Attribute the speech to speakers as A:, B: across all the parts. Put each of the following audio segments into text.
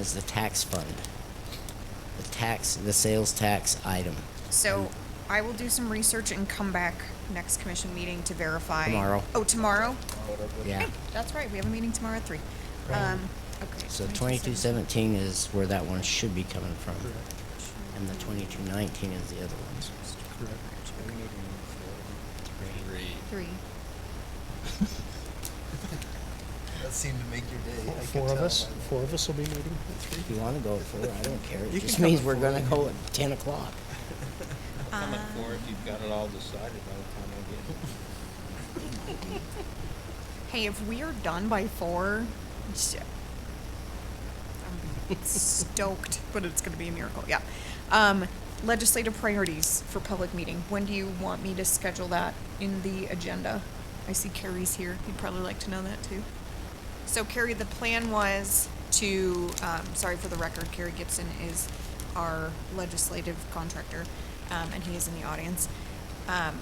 A: is the tax fund. The tax, the sales tax item
B: So I will do some research and come back next commission meeting to verify.
A: Tomorrow.
B: Oh, tomorrow?
A: Yeah.
B: Hey, That's right, we have a meeting tomorrow at three.
A: Right.
B: Um, okay.
A: So twenty-two seventeen is where that one should be coming from, and the twenty-two nineteen is the other ones.
B: Three.
C: That seemed to make your day. I
D: Four
C: could
D: of
C: tell
D: us,
C: by the-
D: four of us will be meeting at three.
A: If you wanna go at four, I don't care,
C: You
A: it
C: can
A: just
C: come
A: means
C: at
A: we're
C: four.
A: gonna go at ten o'clock.
E: Come
B: Um,
E: at four if you've got it all decided by the time I get here.
B: Hey, if we are done by four, sh- I'm stoked, but it's gonna be a miracle, yeah. Um, legislative priorities for public meeting, when do you want me to schedule that in the agenda? I see Carrie's here, you'd probably like to know that too. So Carrie, the plan was to, um, sorry for the record, Carrie Gibson is our legislative contractor, um, and he is in the audience. Um,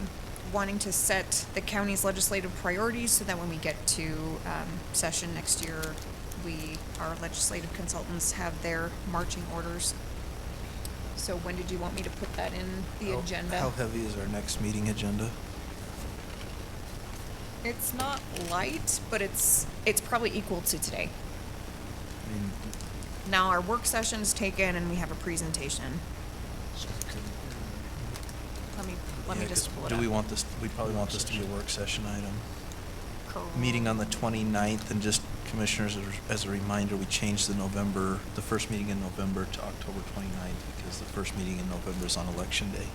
B: wanting to set the county's legislative priorities so that when we get to, um, session next year, we, our legislative consultants have their marching orders. So when did you want me to put that in the
C: How-
B: agenda?
C: How heavy is our next meeting agenda?
B: It's not light, but it's, it's probably equal to today.
C: I mean,
B: Now our work session's taken and we have a presentation. Let me, let me
C: yeah, 'cause
B: just pull it
C: Do
B: up.
C: we want this, we probably want this to be a work session item. Meeting on the 29th, and just commissioners, as a- as a reminder, we changed the November, the first meeting in November to October 29th, because the first meeting in November is on Election Day.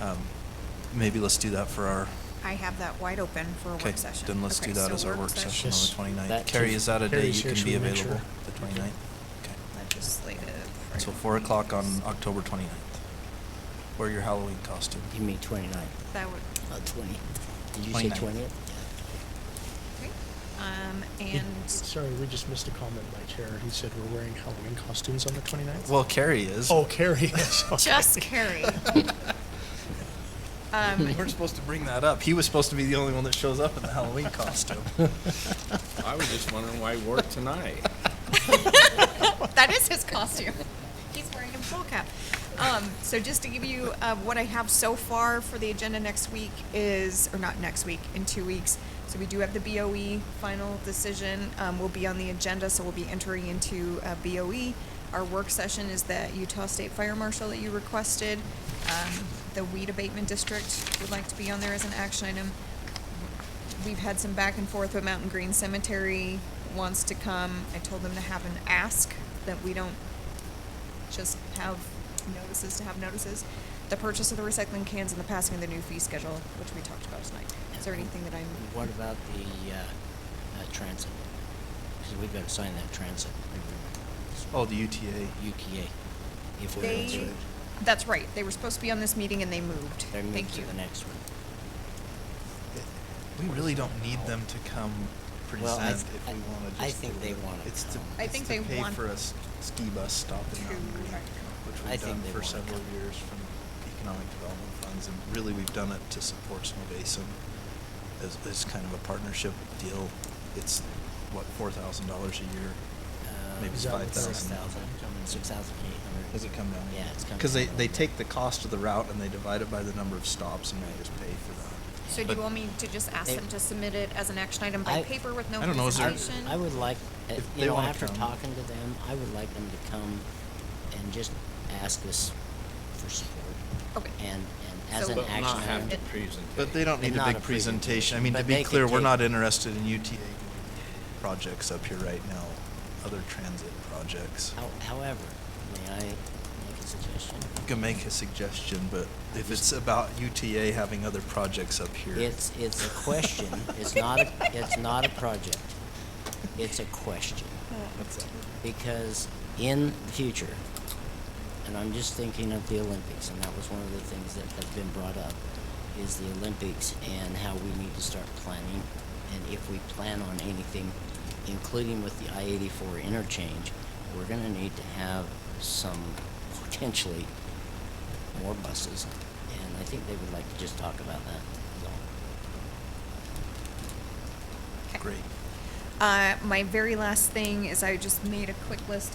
C: Um, Maybe let's do that for our,
B: I have that wide open for a
C: okay,
B: work session.
C: then let's
B: Okay,
C: do that
B: so
C: as our work session on
D: session.
C: the 29th.
A: That
C: Carrie,
A: too.
C: is that a day
D: Carrie's
C: you
D: here,
C: can
D: she
C: be
D: will make
C: available,
D: sure.
C: the 29th? Okay.
B: Legislative.
C: So four o'clock on
B: priorities.
C: October 29th. Wear your Halloween costume.
A: You mean twenty-nine,
B: That would,
A: uh, twenty, did you say
C: 29th.
A: twentieth?
B: okay. Um,
D: He-
B: and
D: Sorry, we just missed a comment by chair. He said we're wearing Halloween costumes on the 29th.
C: Well, Carrie is.
D: Oh, Carrie, yes. okay.
B: just Carrie.
C: we
B: Um,
C: weren't supposed to bring that up. He was supposed to be the only one that shows up in the Halloween costume.
E: I was just wondering why he wore it tonight.
B: that is his costume. He's wearing a full cap. Um, so just to give you uh, what I have so far for the agenda next week is, or not next week, in two weeks. So we do have the BOE final decision. Um, will be on the agenda, so we'll be entering into uh, BOE. Our work session is the Utah State Fire Marshal that you requested. Um, the weed abatement district would like to be on there as an action item we've had some back and forth with Mountain Green Cemetery wants to come. I told them to have an ask that we don't just have notices to have notices. The purchase of the recycling cans and the passing of the new fee schedule, which we talked about tonight. Is there anything that I'm?
A: What about the, uh, uh, transit? Cause we gotta sign that transit agreement,
C: oh, the UTA.
A: UKA, if we're
B: They-
A: into it.
B: That's right. They were supposed to be on this meeting and they moved.
A: They're moved
B: Thank
A: to
B: you.
A: the next one.
C: We really don't need them to come present
A: Well, I th-
C: if we
A: I-
C: want to just
A: I think
C: do
A: they
C: it.
A: wanna
C: It's to,
A: come.
B: I
C: it's
B: think
C: to
B: they
C: pay
B: want
C: for a s- ski bus stop in Mountain Green,
B: Correct.
C: which
A: I
C: we've
A: think
C: done
A: they
C: for
A: wanna
C: several
A: come.
C: years from economic development funds, and really we've done it to support Snow Basin as, as kind of a partnership deal. It's what four thousand dollars a year. Maybe
A: Um,
C: 5,000.
A: Six thousand, six thousand eight hundred.
C: Does it come down?
A: Yeah, it's coming
C: Because they,
A: down.
C: they take the cost of the route and they divide it by the number of stops and they just pay for that.
B: So do
C: But-
B: you want me to just ask
A: They-
B: them to submit it as an action item by
A: I-
B: paper with no
C: I don't know, is there-
B: presentation?
A: I would like, uh,
C: If
A: you
C: they
A: know,
C: wanna
A: after
C: come.
A: talking to them, I would like them to come and just ask us for support
B: Okay.
A: and, and as
B: So-
A: an
E: But
A: action
E: not have to
A: item.
E: present.
C: But they don't
A: And
C: need a
A: not
C: big
A: a presentation,
C: presentation. I mean, to
A: but
C: be
A: they could
C: clear, we're
A: take-
C: not interested in UTA projects up here right now, other transit projects.
A: How- However, may I make a suggestion?
C: You can make a suggestion, but if it's about UTA having other projects up here.
A: It's, it's a question, it's not, a it's not a project, it's a question.
B: Uh,
A: Because in the future, and I'm just thinking of the Olympics, and that was one of the things that has been brought up, is the Olympics and how we need to start planning. And if we plan on anything, including with the I-84 interchange, we're gonna need to have some potentially more buses. And I think they would like to just talk about that, is all.
B: Okay.
C: Great.
B: Uh, my very last thing is I just made a quick list